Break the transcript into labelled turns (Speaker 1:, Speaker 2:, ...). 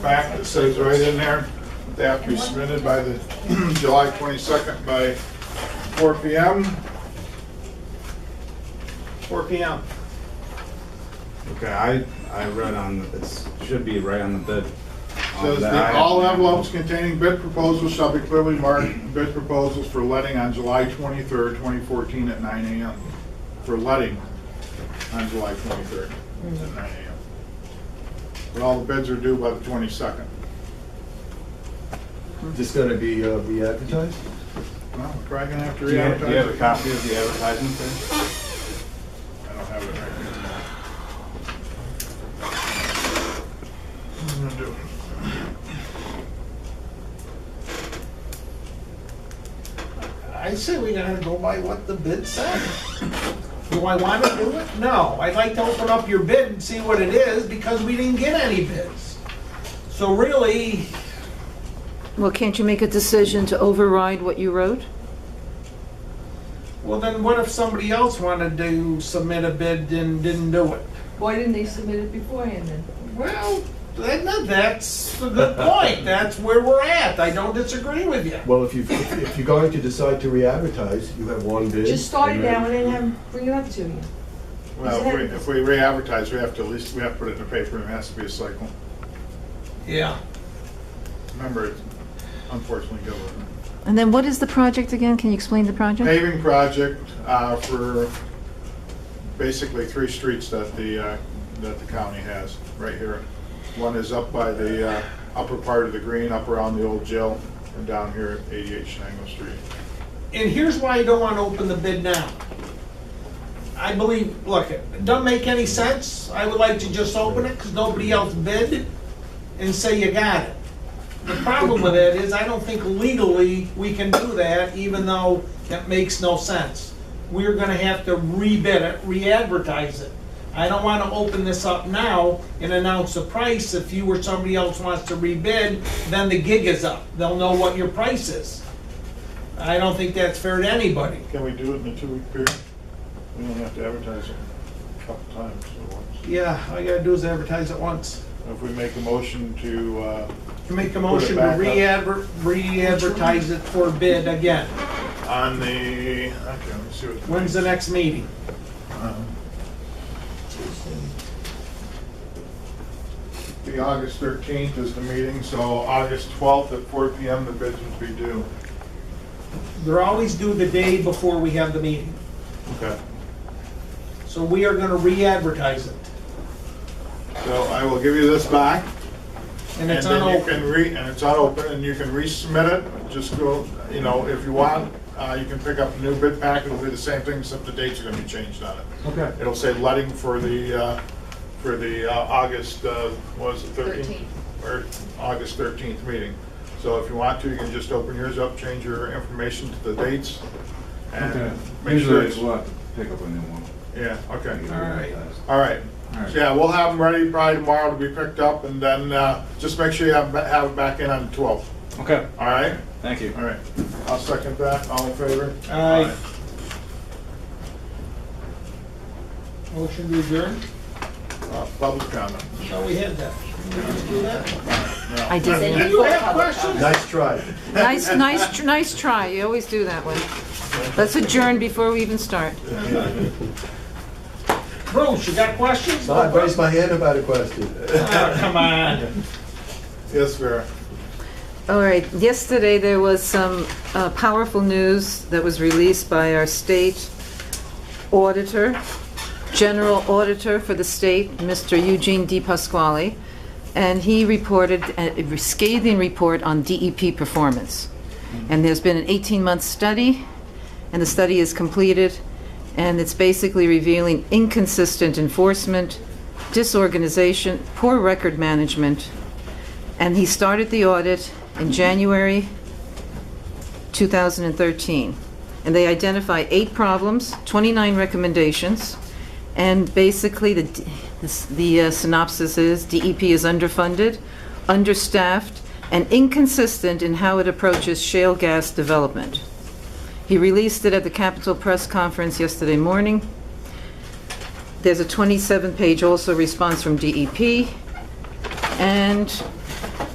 Speaker 1: back that says right in there, they have to be submitted by the July 22nd by 4 PM. 4 PM.
Speaker 2: Okay, I, I read on, the- it's, should be right on the bid. Um,
Speaker 1: Says that all envelopes containing bid proposals shall be clearly marked bid proposals for letting on July 23rd, 2014 at 9 AM. For letting on July 23rd at 9 AM. But all the bids are due by the 22nd.
Speaker 3: Just gonna be uh, re-advertised?
Speaker 1: Well, we're probably gonna have to
Speaker 2: Do you
Speaker 1: re-advertise.
Speaker 2: have do you have a
Speaker 1: it.
Speaker 2: copy of the advertisement there?
Speaker 1: I don't have it right here. I'm gonna do
Speaker 4: I say we gotta go by what the bid said. Do I wanna do it? No, I'd like to open up your bid and see what it is, because we didn't get any bids. So really,
Speaker 5: Well, can't you make a decision to override what you wrote?
Speaker 4: well then what if somebody else wanted to submit a bid and didn't do it?
Speaker 6: Why didn't they submit it beforehand then?
Speaker 4: Well, then that's a good point, that's where we're at, I don't disagree with you.
Speaker 3: Well, if you, if you're going to decide to re-advertise, you have one bid.
Speaker 6: Just start it
Speaker 3: and then-
Speaker 6: now and then have, bring it up to me.
Speaker 1: it. Well, if we- if we re-advertise, we have to at least, we have to put it in the paper, and it has to be a cycle.
Speaker 4: Yeah.
Speaker 1: Remember, it's unfortunately government.
Speaker 5: And then what is the project again? Can you explain the project?
Speaker 1: Paving project uh, for basically three streets that the, uh, that the county has, right here. One is up by the uh, upper part of the green, up around the old jail, and down here at 88 Shango Street.
Speaker 4: And here's why I don't want to open the bid now. I believe, look, it doesn't make any sense. I would like to just open it because nobody else bid and say you got it. The problem with that is I don't think legally we can do that, even though that makes no sense. We're gonna have to rebid it, re-advertise it. I don't want to open this up now and announce the price. If you or somebody else wants to rebid, then the gig is up. They'll know what your price is. I don't think that's fair to anybody.
Speaker 1: Can we do it in a two-week period? We don't have to advertise it a couple times at once.
Speaker 4: Yeah, all you gotta do is advertise it once.
Speaker 1: If we make a motion to, uh,
Speaker 4: Make a motion
Speaker 1: back
Speaker 4: to
Speaker 1: up.
Speaker 4: re-adver, re-advertise it for bid again.
Speaker 1: on the, okay, let me see what.
Speaker 4: When's the next meeting?
Speaker 1: um, The August 13th is the meeting, so August 12th at 4 PM, the bids would be due.
Speaker 4: They're always due the day before we have the meeting,
Speaker 1: Okay.
Speaker 4: so we are gonna re-advertise it.
Speaker 1: So I will give you this back.
Speaker 4: And
Speaker 1: And
Speaker 4: it's on
Speaker 1: then you can
Speaker 4: open.
Speaker 1: re, and it's unopened, and you can resubmit it, just go, you know, if you want, uh, you can pick up a new bid pack, it'll be the same thing, except the dates are gonna be changed on it.
Speaker 4: Okay.
Speaker 1: It'll say letting for the, uh, for the uh, August, uh, what is it, 13th? Or August 13th meeting. So if you want to, you can just open yours up, change your information to the dates, and make sure
Speaker 2: Usually
Speaker 1: it's,
Speaker 2: we'll have to pick up a new one.
Speaker 1: yeah, okay.
Speaker 2: Get it
Speaker 4: right.
Speaker 2: advertised.
Speaker 1: All right.
Speaker 2: All right.
Speaker 1: So, yeah, we'll have them ready probably tomorrow to be picked up, and then uh, just make sure you have, have it back in on the 12th.
Speaker 2: Okay,
Speaker 1: All right?
Speaker 2: thank you.
Speaker 1: All right. I'll second that. All in favor?
Speaker 4: Aye. Motion to adjourn?
Speaker 1: Uh, Public comment.
Speaker 4: No, we had that. Did we just do that?
Speaker 5: I did.
Speaker 4: Do you have questions?
Speaker 3: Nice try.
Speaker 5: Nice, nice, tr- nice try. You always do that one. Let's adjourn before we even start.
Speaker 4: Bruce, you got questions?
Speaker 3: So I raised my hand about a question.
Speaker 4: Oh, Come on.
Speaker 1: Yes, Vera?
Speaker 5: All right, yesterday there was some uh, powerful news that was released by our state auditor, general auditor for the state, Mr. Eugene D. Pasquale, and he reported uh, a scathing report on DEP performance. And there's been an 18-month study, and the study is completed, and it's basically revealing inconsistent enforcement, disorganization, poor record management, and he started the audit in January 2013. And they identify eight problems, 29 recommendations, and basically the, d- this- the uh, synopsis is DEP is underfunded, understaffed, and inconsistent in how it approaches shale gas development. He released it at the Capitol Press Conference yesterday morning. There's a 27-page also response from DEP, E and